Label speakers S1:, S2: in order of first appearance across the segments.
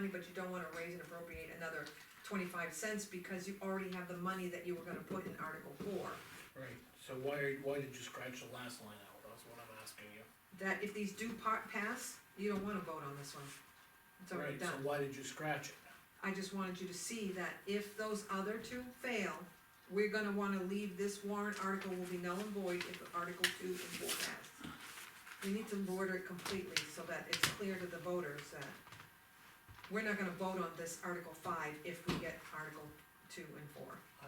S1: but you don't wanna raise and appropriate another twenty-five cents because you already have the money that you were gonna put in Article four.
S2: Right, so why, are- why did you scratch the last line out, that's what I'm asking you.
S1: That if these do part pass, you don't wanna vote on this one. It's already
S2: Right, so
S1: done.
S2: why did you scratch it?
S1: I just wanted you to see that if those other two fail, we're gonna wanna leave this warrant article will be null and void if Article two and four pass. We need to border it completely so that it's clear to the voters that we're not gonna vote on this Article five if we get Article two and four.
S2: I,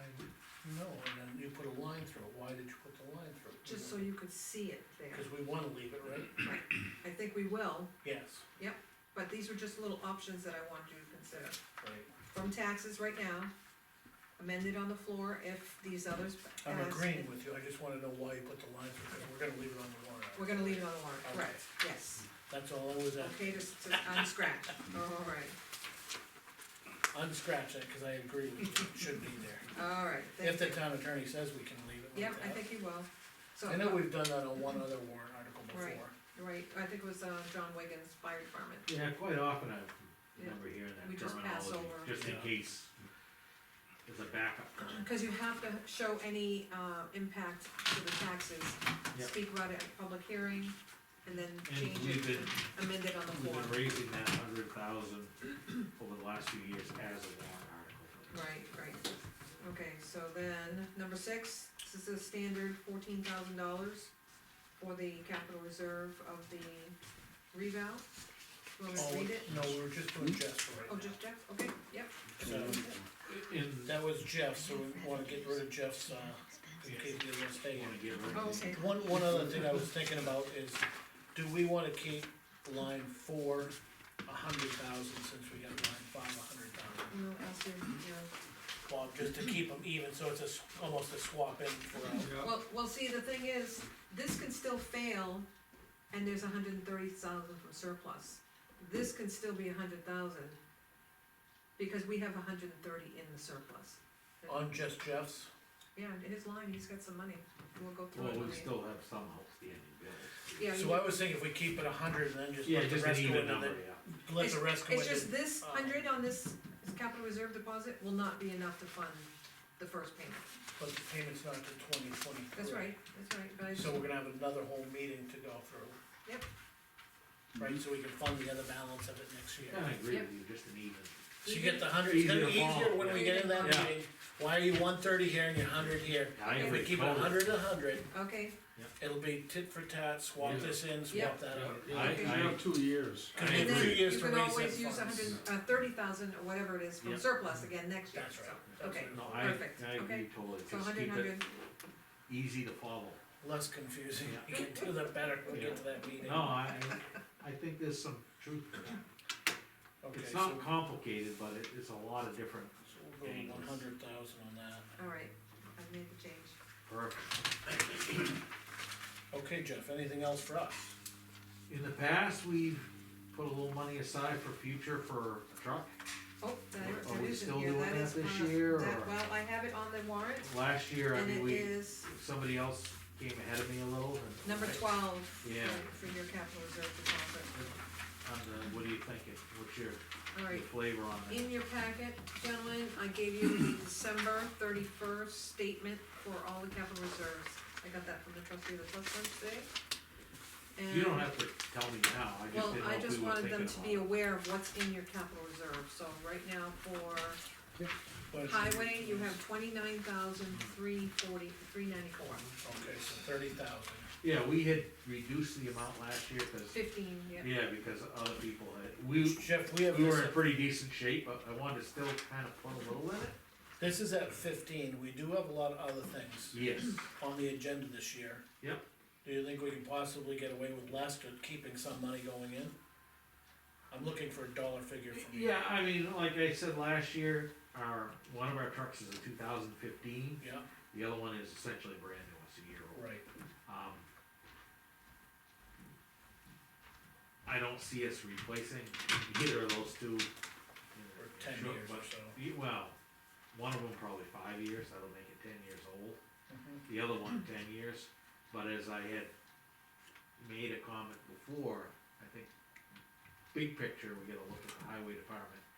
S2: no, and then you put a line through it, why did you put the line through? it?
S1: Just so you could see it there.
S2: Cause we wanna leave it, right?
S1: I think we will,
S2: Yes,
S1: but these are just little options that I want you to consider.
S2: right.
S1: From taxes right now, amended on the floor if these others pass.
S2: I'm agreeing with you, I just wanna know why you put the line through, cause we're gonna leave it on the warrant.
S1: We're gonna leave it on the warrant,
S2: Okay.
S1: correct, yes.
S2: That's all I was asking,
S1: Okay, to, to unscratch, all right,
S2: unscratch that, cause I agree with you, it should be there.
S1: all right. thank
S2: If the
S1: you.
S2: town attorney says we can leave it
S1: Yep,
S2: like
S1: I
S2: that.
S1: think he will. So,
S2: I know we've done that on one other warrant article
S1: Right.
S2: before.
S1: right, I think it was, uh, John Wigan's fire department.
S3: Yeah, quite often I
S1: Yeah.
S3: remember hearing
S1: We
S3: that
S1: just pass
S3: terminology,
S1: over.
S3: just in
S2: Yeah.
S3: case it's a backup.
S1: Cause you have to show any, uh, impact to the taxes,
S3: Yep.
S1: speak about it at public hearing, and then change
S3: And we've
S1: it,
S3: been,
S1: amend it on the
S3: we've
S1: floor.
S3: been raising that hundred thousand over the last few years as a warrant article.
S1: Right, right, okay, so then, number six, this is a standard fourteen thousand dollars for the capital reserve of the revow. You want me to
S2: Oh,
S1: read it?
S2: No, we were just doing Jeff's for right now.
S1: Oh, just Jeff, okay, yep,
S2: So,
S3: And
S2: that was Jeff, so we wanna get rid of Jeff's, uh, in case he doesn't stay
S3: you
S2: here.
S3: wanna get rid
S1: oh,
S3: of
S1: okay,
S2: One, one other thing I was thinking about is, do we wanna keep line four a hundred thousand since we got line five a hundred thousand?
S1: we'll ask you, yeah.
S2: Well, just to keep them even, so it's a, s- almost a swap in for, uh,
S1: Well, well, see, the thing is, this can still fail, and there's a hundred and thirty thousand from surplus. This can still be a hundred thousand, because we have a hundred and thirty in the surplus.
S2: on just Jeff's.
S1: Yeah, in his line, he's got some money, we'll go through it.
S3: Well,
S1: when
S3: we
S1: we-
S3: still have some outstanding bills.
S1: Yeah,
S2: So
S1: you-
S2: I was thinking if we keep it a hundred and then just
S3: Yeah,
S2: let the
S3: just an
S2: rest go
S3: even
S2: into
S3: number,
S2: the,
S3: yeah.
S2: let the rest go
S1: it's
S2: into
S1: just this
S2: uh,
S1: hundred on this capital reserve deposit will not be enough to fund the first payment.
S2: But the payment's not to twenty twenty-three.
S1: That's right, that's right, but I just,
S2: So we're gonna have another whole meeting to go through.
S1: Yep.
S2: Right, so we can fund the other balance of it next year.
S3: Kinda agree
S1: Yep.
S3: with you, just an even.
S2: So you get the hundred, it's gonna be
S3: Easier to
S2: easier
S3: follow.
S2: when we get in that
S3: Yeah.
S2: meeting, why are you one thirty here and you're hundred here?
S3: I
S2: If
S3: agree
S2: we keep it a
S3: totally.
S2: hundred, a hundred,
S1: okay,
S2: it'll be tit for tat, swap
S3: Yeah.
S2: this in,
S1: Yeah.
S2: swap that out.
S3: I,
S1: Okay.
S3: I,
S4: have two years.
S3: I
S2: Could be
S1: and
S2: two
S1: then
S3: agree.
S2: years
S1: you
S2: to
S1: can
S2: raise that
S1: always use a
S2: funds.
S1: hundred, uh, thirty thousand or whatever it is from
S3: Yep.
S1: surplus again next year,
S2: That's
S1: so,
S2: right. That's
S1: okay.
S2: right.
S3: No,
S2: No,
S3: I,
S1: Perfect,
S3: I
S1: okay.
S3: agree totally,
S1: so
S3: just
S1: hundred,
S3: keep it
S1: hundred,
S3: easy to follow.
S2: Less confusing,
S3: Yeah.
S2: you can do that better when we
S3: Yeah.
S2: get to that meeting.
S3: No, I, I think there's some truth to that.
S2: Okay,
S3: It's
S2: so
S3: not complicated, but it, it's a lot of different,
S2: so we'll go one hundred thousand on that.
S1: alright, I've made the change.
S3: perfect.
S2: Okay, Jeff, anything else for us?
S3: In the past, we've put a little money aside for future for a truck.
S1: Oh, that is,
S3: Are we
S1: that is in
S3: still
S1: here,
S3: doing
S1: that
S3: that
S1: is,
S3: this
S1: uh,
S3: year,
S1: that,
S3: or-
S1: well, I have it on the warrant,
S3: Last year, I
S1: and
S3: mean,
S1: it
S3: we,
S1: is
S3: somebody else came ahead of me a little. and-
S1: number twelve
S3: Yeah.
S1: for, for your capital reserve deposit.
S3: On the, what are you thinking? What's your, your
S1: Alright,
S3: flavor on it?
S1: In your packet, gentlemen, I gave you the December thirty-first statement for all the capital reserves. I got that from the trustee of the trust fund today.
S3: You don't
S1: And-
S3: have to tell me now, I just
S1: Well,
S3: didn't know
S1: I
S3: if
S1: just
S3: we were
S1: wanted them to be
S3: thinking about
S1: aware of what's in your capital reserve, so right now for
S2: What is it?
S1: highway, you have twenty-nine thousand, three forty, three ninety-four.
S2: Okay, so thirty thousand.
S3: it. Yeah, we had reduced the amount last year, cause,
S1: Fifteen, yeah,
S3: yeah, because other people had, we,
S2: Jeff, we have
S3: we were
S2: this,
S3: in pretty decent shape, but I wanted to still kind of put a little in it.
S2: this is at fifteen, we do have a lot of other things
S3: Yes,
S2: on the agenda this year.
S3: Yep.
S2: Do you think we can possibly get away with less or keeping some money going in? I'm looking for a dollar figure from you.
S3: yeah, I mean, like I said last year, our, one of our trucks is a two thousand fifteen,
S2: Yeah,
S3: the other one is essentially brand new, it's a year old.
S2: right,
S3: Um, I don't see us replacing either of those two. in the
S2: for ten
S3: short-
S2: years or
S3: but-
S2: so.
S3: y- Well, one of them probably five years, that'll make it ten years old,
S2: Mhm.
S3: the other one ten years, but as I had made a comment before, I think, big picture, we gotta look at the highway department